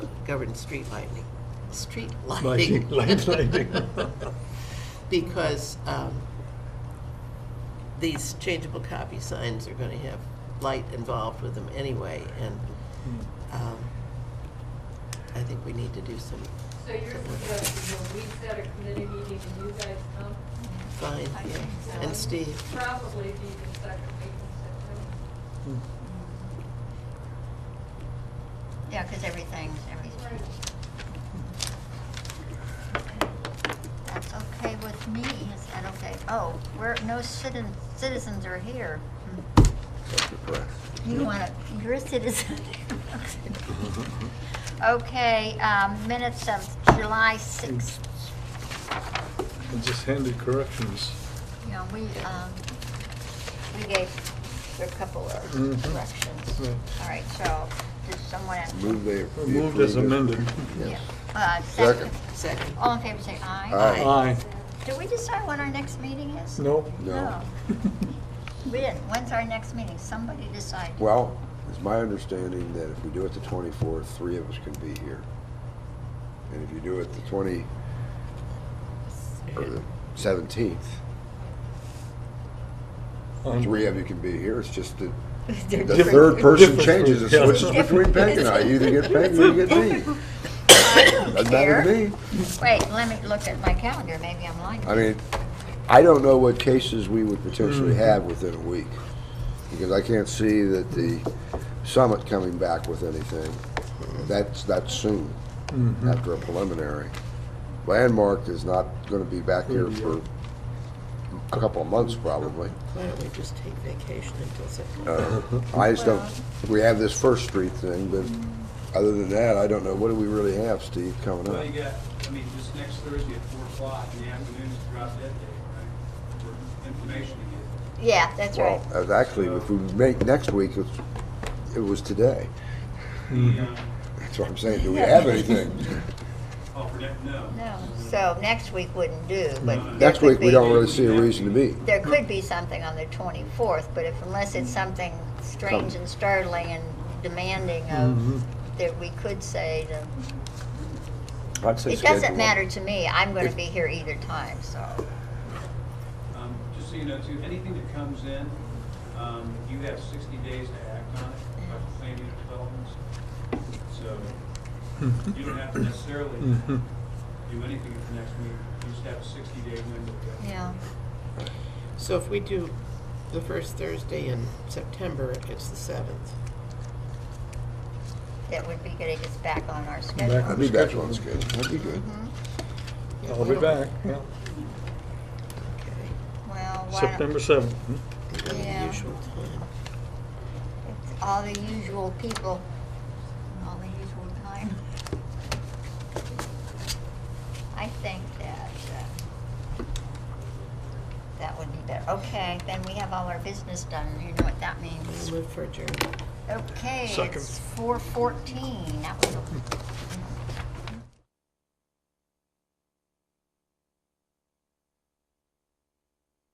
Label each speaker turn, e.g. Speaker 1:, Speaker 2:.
Speaker 1: govern street lighting, street lighting.
Speaker 2: Lighting, light lighting.
Speaker 1: Because um, these changeable copy signs are going to have light involved with them anyway, and
Speaker 2: Hmm.
Speaker 1: um, I think we need to do some
Speaker 3: So you're suggesting that we set a committee meeting and you guys come?
Speaker 1: fine, yeah. And Steve,
Speaker 3: Probably be the second week in
Speaker 4: Yeah, because everything's,
Speaker 3: September.
Speaker 4: everything's, that's okay with me, is that okay? Oh, we're, no citizens, citizens are here. Hmm. You want to, you're a citizen. Okay, um, minutes of July sixth,
Speaker 2: And just handed corrections.
Speaker 4: you know, we, um, we gave a couple of
Speaker 2: Mhm.
Speaker 4: corrections.
Speaker 2: Yeah.
Speaker 4: All right, so, does someone have?
Speaker 5: Mm-hmm. Move they.
Speaker 2: We're Moved as amended.
Speaker 4: Yeah. Uh, second,
Speaker 5: Second.
Speaker 1: second.
Speaker 4: all in favor, say aye.
Speaker 5: Aye.
Speaker 2: Aye.
Speaker 4: Did we decide when our next meeting is?
Speaker 2: No.
Speaker 5: No.
Speaker 4: We didn't. When's our next meeting? Somebody decide.
Speaker 5: Well, it's my understanding that if we do it the 24th, three of us can be here. And if you do it the 20, or the 17th,
Speaker 2: Um,
Speaker 5: three of you can be here. It's just that the
Speaker 2: Different-
Speaker 5: third person
Speaker 2: different
Speaker 5: changes, it
Speaker 2: group, yeah.
Speaker 5: switches between Peg and I. You either get Peg or you get me. Doesn't matter to
Speaker 4: Here.
Speaker 5: me.
Speaker 4: Wait, let me look at my calendar. Maybe I'm lying.
Speaker 5: I mean, I don't know what cases we would potentially have within a week, because I can't see that the summit coming back with anything. That's, that's soon,
Speaker 2: Mm-hmm.
Speaker 5: after a preliminary. Landmark is not gonna be back here for a couple of months, probably.
Speaker 1: Why don't we just take vacation until September?
Speaker 2: Uh-huh.
Speaker 5: Uh, I just don't, we have this First Street thing, but other than that, I don't know, what do we really have, Steve, coming
Speaker 6: Well,
Speaker 5: up?
Speaker 6: you got, I mean, just next Thursday at four o'clock in the afternoon is drop dead day, right? For information to get.
Speaker 4: Yeah, that's right.
Speaker 5: Well, uh, actually, if we make next week, it's, it was today.
Speaker 2: Mm-hmm.
Speaker 6: The, um,
Speaker 5: That's what I'm saying, do we have anything?
Speaker 6: oh, for that, no.
Speaker 4: No, so next week wouldn't do, but. there
Speaker 5: Next
Speaker 4: could
Speaker 5: week, we
Speaker 4: be-
Speaker 5: don't really see a reason to meet.
Speaker 4: There could be something on the twenty-fourth, but if, unless it's something Mm-hmm. strange and startling and demanding of, that we could say to.
Speaker 5: I'd say
Speaker 4: It
Speaker 5: schedule
Speaker 4: doesn't
Speaker 5: it.
Speaker 4: matter to me. I'm gonna
Speaker 5: If-
Speaker 4: be here either time, so.
Speaker 6: Um, just so you know too, anything that comes in, um, you have sixty days to act on it, like the planning and developments. So you don't have to necessarily
Speaker 2: Mm-hmm.
Speaker 6: do anything at the next meeting. You just have a sixty day window.
Speaker 4: Yeah,
Speaker 1: So if we do the first Thursday in September, it's the seventh.
Speaker 4: that would be getting us back on our
Speaker 5: I'd
Speaker 4: schedule. Mm-hmm.
Speaker 5: be back on schedule, that'd be good.
Speaker 2: I'll be back, yeah.
Speaker 4: Well, why don't-
Speaker 2: September Hmm? 7th.
Speaker 4: Yeah.
Speaker 1: The usual time.
Speaker 4: it's all the usual people, all the usual time. I think that, uh, that would be better. Okay, then we have all our business done. You know what that means.
Speaker 1: Move for adjournment.
Speaker 4: Okay,
Speaker 2: Second.
Speaker 4: it's four fourteen. That was a